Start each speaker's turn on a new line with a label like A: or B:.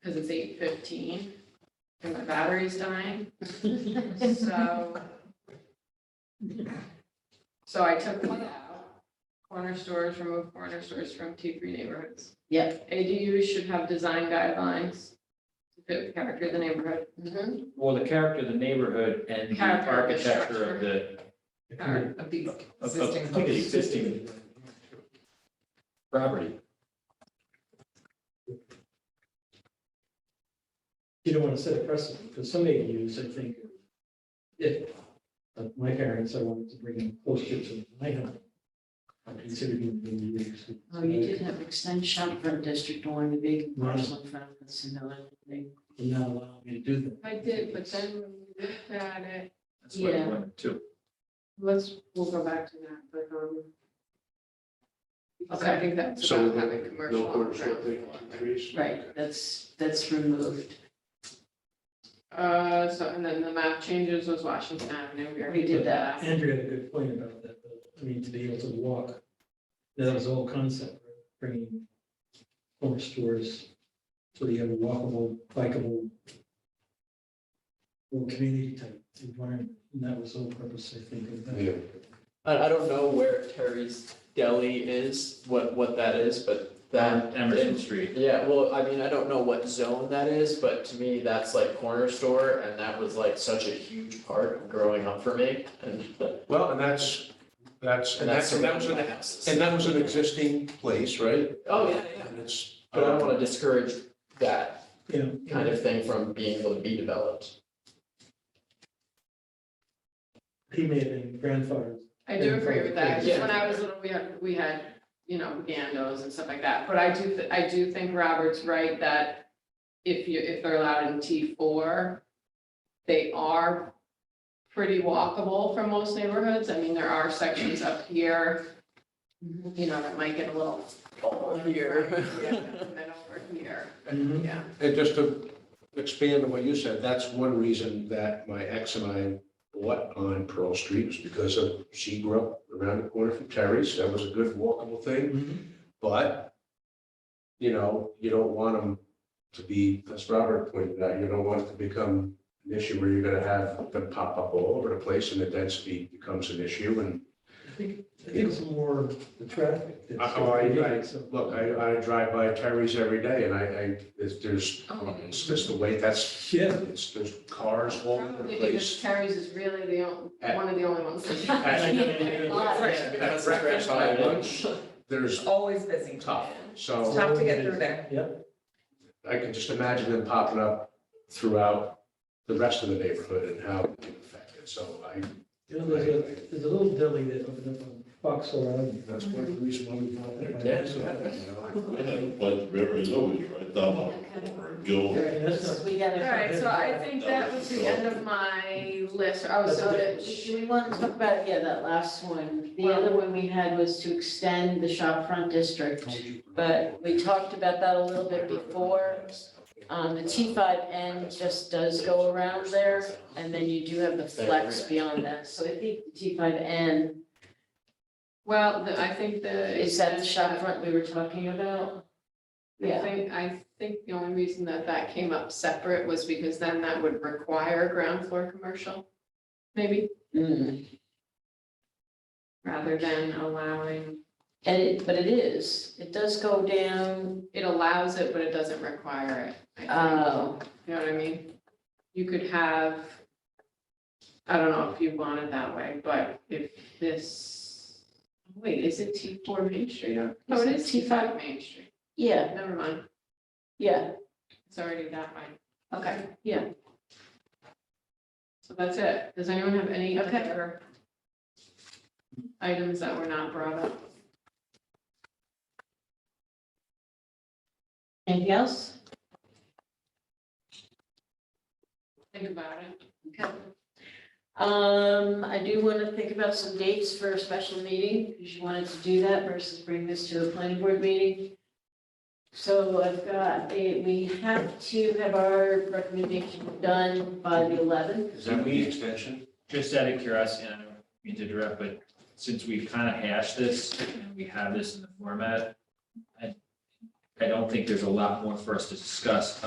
A: because it's eight fifteen and my battery's dying. So. So I took one out, corner stores, remove corner stores from T three neighborhoods.
B: Yep.
A: ADUs should have design guidelines to fit the character of the neighborhood.
B: Mm-hmm.
C: Well, the character of the neighborhood and the
A: Character of the
C: architecture of the,
A: Or-
D: Of the
C: of- of
D: existing.
C: the existing property.
E: You don't want to set a precedent, because some ADUs, I think, if, like my parents, I wanted to bring them closer to my home. I considered them being used.
B: Oh, you did have extend shopfront district on the big parcel in front of the Sonoma thing.
E: Not allowing me to do that.
A: I did, but then when we looked at it,
C: That's what I
B: Yeah.
C: wanted to.
A: let's, we'll go back to that, but, um. Because I
B: Okay.
A: think that's
F: So
A: about
F: no-
A: having commercial.
F: No quarter
A: on-prem.
F: short thing on trees?
B: Right, that's, that's removed.
A: Uh, so, and then the map changes was Washington Avenue. already
B: We did that.
E: Andrew had a good point about that, though. I mean, to be able to walk, that was the whole concept, bringing corner stores so that you have a walkable, bikeable little community type environment, and that was the whole purpose, I think, of that.
F: Yeah.
G: I, I don't know where Terry's Deli is, what, what that is, but that.
C: Emerson Street.
G: Yeah, well, I mean, I don't know what zone that is, but to me, that's like corner store and that was like such a huge part of growing up for me and.
F: Well, and that's, that's, and that's, and that was, an- and
G: houses.
F: that was an existing place, right?
G: Oh, yeah, yeah,
F: And it's.
G: but I don't wanna discourage that
E: Yeah.
G: kind of thing from being able to be developed.
E: He may have been grandfathered.
A: I do agree with that, 'cause
G: Yeah.
A: when I was little, we had, we had, you know, gandos and stuff like that, but I do, th- I do think Robert's right that if you, if they're allowed in T four, they are pretty walkable for most neighborhoods, I mean, there are sections up here, you know, that might get a little. Yeah, And then over here,
F: Mm-hmm. Mhm.
A: yeah.
F: And just to expand on what you said, that's one reason that my ex and I bought on Pearl Street was because of, she grew up around the corner from Terry's. That was a good walkable thing.
E: Mhm.
F: But, you know, you don't want them to be, as Robert pointed out, you don't want it to become an issue where you're gonna have them pop up all over the place and the density becomes an issue. And
E: I think, I think it's more the traffic. that's-
F: I- oh, I- I- look, I, I drive by Terry's every day and I, I, there's- there's, it's just the way that's,
E: Yeah,
F: it's, there's cars all over the
A: Probably because
F: place.
A: Terry's is really the only,
F: At-
A: one of the only ones.
F: At at breakfast, at lunch, there's
D: Always busy.
F: tough.
D: It's
F: So
D: tough to get through there.
E: yeah,
F: I can just imagine them popping up throughout the rest of the neighborhood and how it can affect it. So I,
E: you know, there's a, there's a little deli that opened up on Fox Avenue.
F: that's one of the reason why we bought it.
G: Yeah.
F: So,
H: I have Blood River is always right down over Gill.
E: Yeah, and that's not-
B: We got
A: All
B: it.
A: right, so I think that was the end of my list, oh, so that,
B: Do we want to talk about, yeah, that last one? The other one we had was to extend the shopfront district. But we talked about that a little bit before. Um, the T five N just does go around there, and then you do have the flex beyond that, so I think the T five N,
A: well, the- I think the.
B: is that the shopfront we were talking about?
A: I
B: Yeah,
A: think, I think the only reason that that came up separate was because then that would require ground floor commercial, maybe,
B: Mm.
A: rather than allowing,
B: and it, but it is, it does go down,
A: it allows it, but it doesn't require it. I think.
B: oh,
A: You know what I mean? You could have, I don't know if you want it that way, but if this, wait, is it T four Main Street? or- Oh, it is T five Main Street.
B: yeah,
A: Never mind,
B: yeah,
A: it's already that way.
B: okay, yeah,
A: So that's it. Does anyone have any
B: Okay.
A: other items that were not brought up?
B: anything else?
A: Think about it.
B: Okay. Um, I do want to think about some dates for a special meeting, because you wanted to do that versus bring this to a planning board meeting. So I've got, a- we have to have our recommendation done by the eleventh.
F: Is that the extension?
C: Just out of curiosity, and I don't mean to interrupt, but since we've kind of hashed this and we have this in the format, I, I don't think there's a lot more for us to discuss